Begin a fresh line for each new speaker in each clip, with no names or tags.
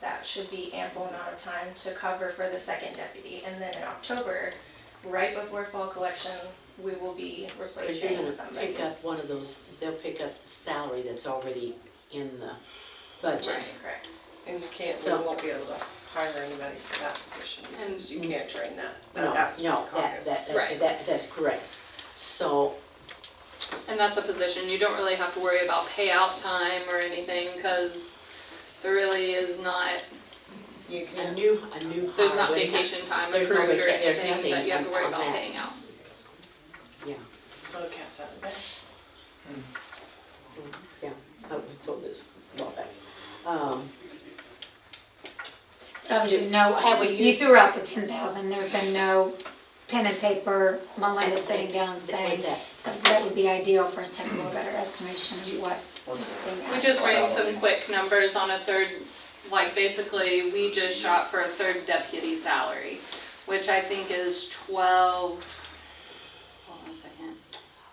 that should be ample amount of time to cover for the second deputy. And then in October, right before fall collection, we will be
Because you're
replacing
gonna
somebody.
pick up one of those, they'll pick up the salary that's already in the budget.
Right, correct.
And you can't, we
So-
won't be able to hire anybody for that position because you can't train that.
No,
That has to be
no, that,
caucus.
that, that,
Right.
that- that's correct. So,
And that's a position, you don't really have to worry about payout time or anything, because there really is not,
You
a
can,
new, a new hire.
there's not
would have-
vacation time
There's no
accrued or
vaca- there's
anything
nothing
that you have to worry
on
about
that.
paying out.
Yeah,
so the cat's out of the bag.
yeah, I was oh, told this a while back. Um,
Obviously, no,
Have we
you
used-
threw out the ten thousand, there've been no pen and paper, Melinda sitting down saying,
With that.
so that would be ideal for us to have a little better estimation of what is being
We
asked
just
for.
ran some quick numbers on a third, like basically, we just shot for a third deputy salary, which I think is twelve, hold on a second.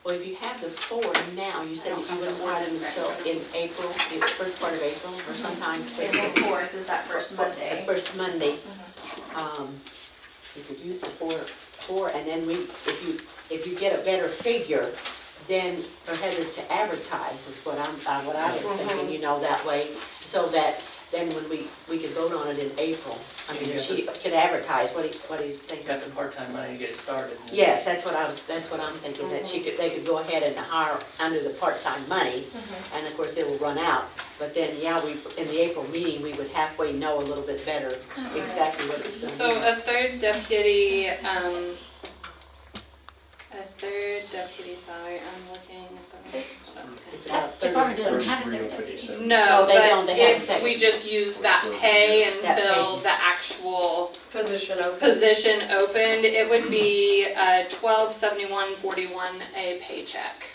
Well, if you have the four now, you said
I don't
that you
have
wouldn't
the
want them
ones right in
until
front of
in April, the first part of April, or sometime.
April fourth is that first
The
Monday. Mm-hmm.
first Monday. Um, you could use the four, four, and then we, if you, if you get a better figure, then for Heather to advertise is what I'm, uh, what I was
Mm-hmm.
thinking, you know, that way. So that then when we, we could vote on it in April. I mean, if she could advertise, what do you, what do you think?
Got the part-time money to get it started.
Yes, that's what I was, that's what I'm thinking, that she could, they could go ahead and hire under the part-time money, and of course, it will run out. But then, yeah, we, in the April meeting, we would halfway know a little bit better exactly what it's
So
gonna be.
a third deputy, um, a third deputy salary, I'm looking at the, so that's okay.
It's about
That
30
department doesn't
Thirty
have a
three
third
to
deputy.
fifty-seven.
No,
So they don't-
but
they have
if
section.
we just use that pay until the actual
Position open.
position opened, it would be, uh, twelve seventy-one forty-one a paycheck.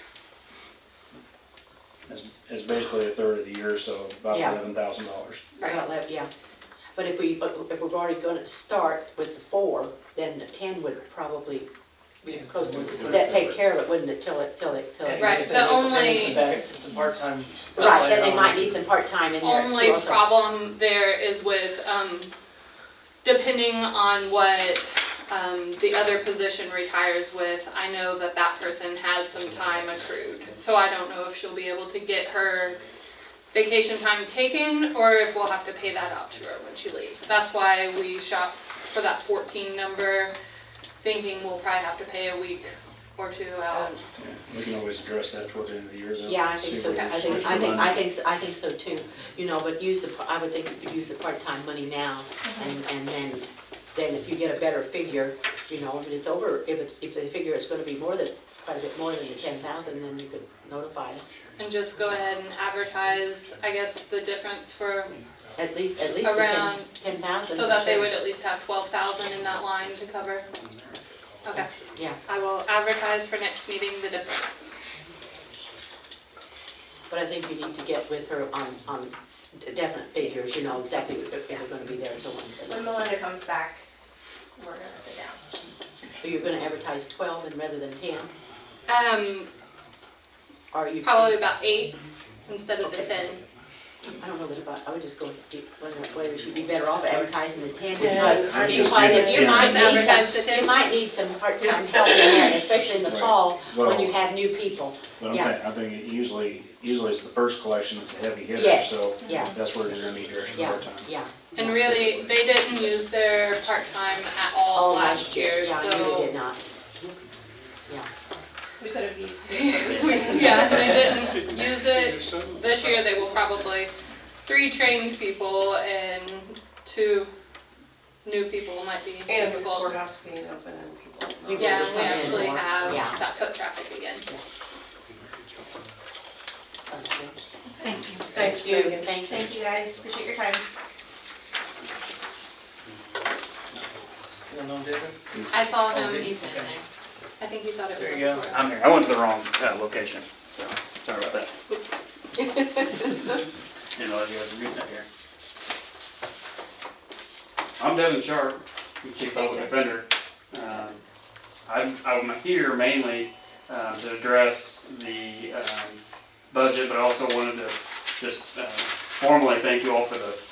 It's- It's basically a third of the year, so about
Yeah.
eleven thousand dollars.
About that, Yeah, but if we, if we're already gonna start with the four, then the ten would probably be
Yeah.
close. That take care of it, wouldn't it, till it, till it, till it?
Right, the only-
Some part-time.
Right, then they might need some part-time in there too
Only
also.
problem there is with, um, depending on what, um, the other position retires with, I know that that person has some time accrued. So I don't know if she'll be able to get her vacation time taken or if we'll have to pay that out to her when she leaves. That's why we shop for that fourteen number, thinking we'll probably have to pay a week or two out.
We can always address that towards the end of the year. though,
Yeah, I
see
think so,
where
I
we-
think,
which
I think,
one.
I think, I think so too, you know, but use the, I would think you could use the part-time money now,
Uh-huh.
and, and then, then if you get a better figure, you know, if it's over, if it's, if they figure it's gonna be more than, quite a bit more than the ten thousand, then you could notify us,
And just go ahead and advertise, I guess, the difference for
at least, at least the ten,
Around-
ten thousand.
So that they would at least have twelve thousand in that line to cover? Okay,
Yeah,
I will advertise for next meeting the difference.
but I think you need to get with her on, on definite figures, you know, exactly if they're gonna be there and so
When
on.
Melinda comes back, we're gonna sit down.
But you're gonna advertise twelve and rather than ten,
Um,
or you?
probably about eight instead of the
Okay.
ten.
I don't know that about, I would just go, with the- whether, whether she'd be better off advertising the ten,
Yeah,
because,
I
think
because if you
ten.
might
Just
need
advertise the
some, you
ten.
might need some part-time help in there, especially in the
Right.
fall, when you
Well-
have new people.
But I'm
Yeah.
thi- I think it usually, usually it's the first collection that's a heavy hitter,
Yes,
so
yeah.
that's where you're gonna need your extra
Yeah,
part-time.
yeah.
And really, they didn't use their part-time at all
All
last year,
Yeah, you really did
so.
not. Yeah,
We could have used.
Yeah, they didn't use it. This year, they will probably, three trained people and two new people might be
And with
difficult.
courthouse being open and people.
You
Yeah,
Just
we
come in
actually
more.
have
Yeah.
that foot traffic again.
that's good.
Thank you.
Thanks, Megan.
Thank you.
Thank you guys, appreciate your time.
Still no different?
I saw
Oh,
him,
did you?
he's sitting there. I think he thought it was.
There
on
you go.
the floor.
I'm here. I went to the wrong uh, location. Sorry about that.
Oops.
Didn't realize you guys were getting that here. I'm Devin Sharp, I'm Chief Public Defender. Um, I'm, I'm here mainly um, to address the um, budget, but I also wanted to just uh, formally thank you all for the